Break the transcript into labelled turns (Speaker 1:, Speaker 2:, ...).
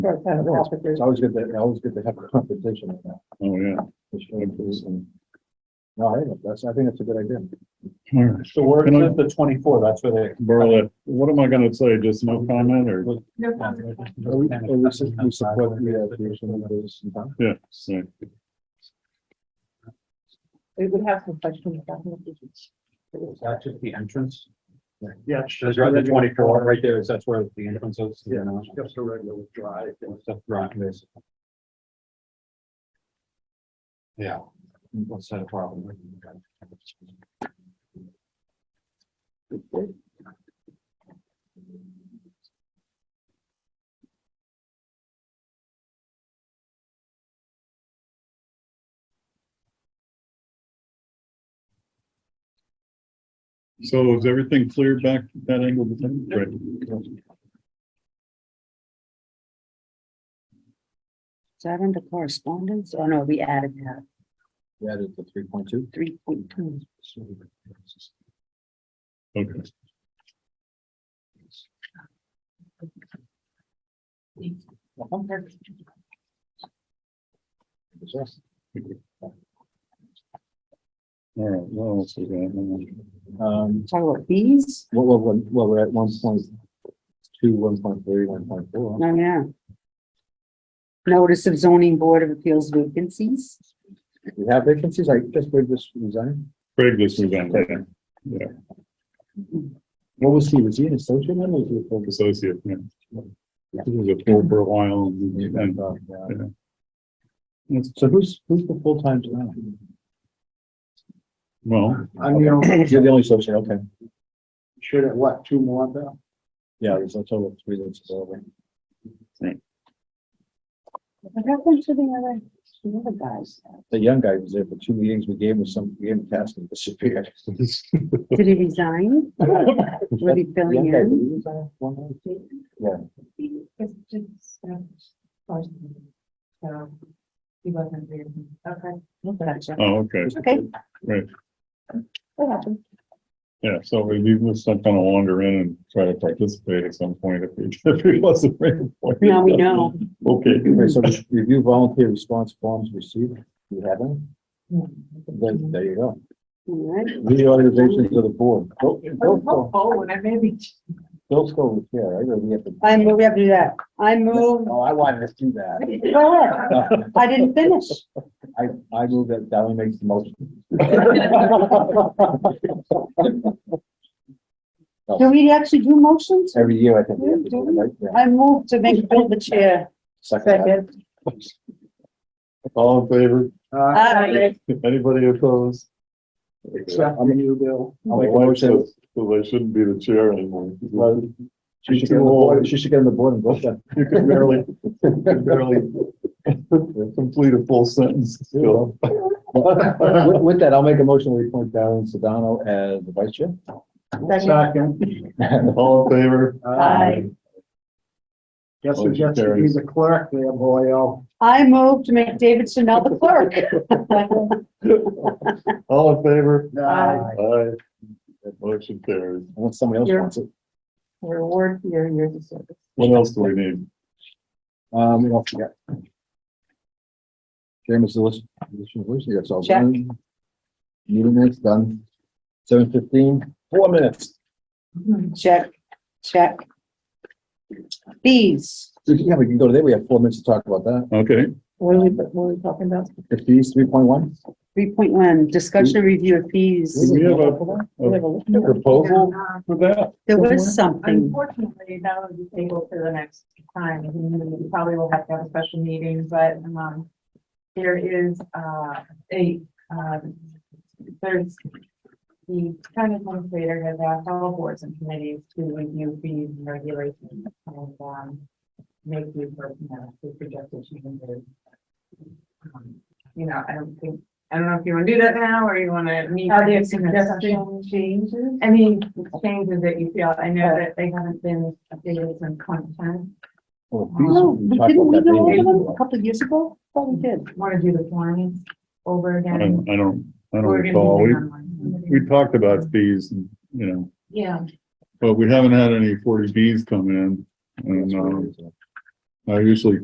Speaker 1: That's kind of
Speaker 2: Well,
Speaker 1: officers.
Speaker 2: It's always good to, always good to have competition in that.
Speaker 3: Oh, yeah.
Speaker 2: It's really interesting. No, I think that's, I think it's a good idea.
Speaker 3: All right.
Speaker 2: So where
Speaker 3: Can I- is
Speaker 2: the twenty-four, that's where they.
Speaker 3: Berlet, what am I gonna say? Just no comment or?
Speaker 1: No
Speaker 2: Are
Speaker 1: problem.
Speaker 2: we, are we su- we support the uh, creation of those in town?
Speaker 3: Yeah, so,
Speaker 1: We would have some questions about it.
Speaker 4: Is that just the entrance?
Speaker 2: Yeah.
Speaker 4: Is that the twenty-four right there? Is that's where the entrance is?
Speaker 2: Yeah, just a regular drive.
Speaker 4: It's a drive, basically. Yeah. What's that problem?
Speaker 3: so is everything clear back that angle? Great.
Speaker 5: Is that under correspondence? Oh, no, we added that,
Speaker 2: Yeah, it's the three point two.
Speaker 5: three point two.
Speaker 3: Okay. All right, what else we got?
Speaker 2: Um,
Speaker 5: Talking about fees?
Speaker 2: well, well, well, well, we're at one point two, one point three, one point four.
Speaker 5: No, Oh, yeah. Notice of zoning board of appeals vacancies.
Speaker 2: We have vacancies, I just read this resign.
Speaker 3: Craig, this is on, yeah,
Speaker 2: What was he, was he an associate member? or was he a full-
Speaker 3: associate, yeah. This was a full for a while and and
Speaker 2: Uh,
Speaker 3: Yeah.
Speaker 2: yeah. So who's, who's the full-time now?
Speaker 3: Well,
Speaker 2: I'm the. You're the only associate, okay.
Speaker 4: Should it, what, two more though?
Speaker 2: Yeah, there's a total of three that's available.
Speaker 5: What happened to the other, the other guys?
Speaker 2: The young guy was there for two meetings. We gave him some, we gave him tasks and disappeared.
Speaker 5: Did he resign? Were they filling
Speaker 2: Young guy,
Speaker 5: in?
Speaker 2: who was that? One of them?
Speaker 1: um, He wasn't there. Okay.
Speaker 5: Gotcha.
Speaker 3: oh, okay,
Speaker 5: Okay.
Speaker 3: Right.
Speaker 5: What happened?
Speaker 3: yeah, so we leave this stuff kind of wander in and try to participate at some point if he, if he wasn't. ready for it.
Speaker 5: Now we know.
Speaker 3: Okay,
Speaker 2: Okay, so review volunteer response forms received. Do you have them?
Speaker 1: Hmm.
Speaker 2: Then, there you go.
Speaker 5: All right.
Speaker 2: Lead the organization to the board. Bill- Bill's go-
Speaker 1: Oh, and I maybe.
Speaker 2: Bill's go with chair, right? Or we have to.
Speaker 5: I move, we have to do that. I move,
Speaker 2: Oh, I wanted to do that.
Speaker 5: go ahead. I didn't finish.
Speaker 2: I, I move that Sally makes the motion.
Speaker 5: Do we actually do motions?
Speaker 2: Every year, I think. we have to do it, right? Yeah.
Speaker 5: I move to make Bill the chair.
Speaker 2: Second. that.
Speaker 3: all in favor?
Speaker 5: Aye.
Speaker 3: Anybody opposed?
Speaker 2: Except you, Bill. I'll
Speaker 3: My
Speaker 2: make a
Speaker 3: wife
Speaker 2: motion.
Speaker 3: says, well, I shouldn't be the chair anymore.
Speaker 2: Well, She should
Speaker 3: Too
Speaker 2: get on the
Speaker 3: old.
Speaker 2: board, she should get on the board and vote then.
Speaker 3: You can barely, you can barely complete a full sentence still.
Speaker 2: With, with that, I'll make a motion, we appoint Darren Sedano as the vice chair.
Speaker 4: Second,
Speaker 3: All in favor?
Speaker 5: Aye.
Speaker 4: guess
Speaker 3: who gets to be the
Speaker 4: clerk there, boyo?
Speaker 5: I move to make David Chanel the clerk.
Speaker 3: All in favor?
Speaker 5: Aye.
Speaker 3: Aye. That motion carries.
Speaker 2: Unless somebody else
Speaker 1: You're-
Speaker 2: wants it.
Speaker 1: Your award for your years of service.
Speaker 3: What else do we need?
Speaker 2: Um, what else we got? Chairman's list, additional list, that's all
Speaker 5: Check.
Speaker 2: done. Meeting minutes done. Seven fifteen, four minutes.
Speaker 5: Check, check. Fees,
Speaker 2: Yeah, we can go to there. We have four minutes to talk about that.
Speaker 3: Okay,
Speaker 1: What are we, what are we talking about?
Speaker 2: The fees, three point one.
Speaker 5: three point one, discussion and review of fees.
Speaker 3: Do we have a-
Speaker 1: We
Speaker 3: a
Speaker 1: have a list.
Speaker 3: proposal for that?
Speaker 5: There was something,
Speaker 6: Unfortunately, that would be tabled for the next time, and we probably will have to have a special meeting, but, um, there is, uh, a, um, there's the county administrator has asked all boards and committees to review fees and regulations and, um, make these personnel, the projected changes. Um, You know, I don't think, I don't know if you want to do that now or you want to meet. Are there in a session? suggestions, changes? I mean, changes that you feel, I know that they haven't been updated since twenty ten.
Speaker 2: Oh,
Speaker 5: no, we Oh, didn't, we know all of them a couple of years ago, thought we did.
Speaker 6: Want to do the lines over
Speaker 3: I
Speaker 6: again?
Speaker 3: don't, I don't, I don't
Speaker 6: We're gonna do
Speaker 3: recall. We,
Speaker 6: them online.
Speaker 3: we talked about fees, and you know,
Speaker 6: Yeah,
Speaker 3: but we haven't had any forty Bs come in. And, um, I usually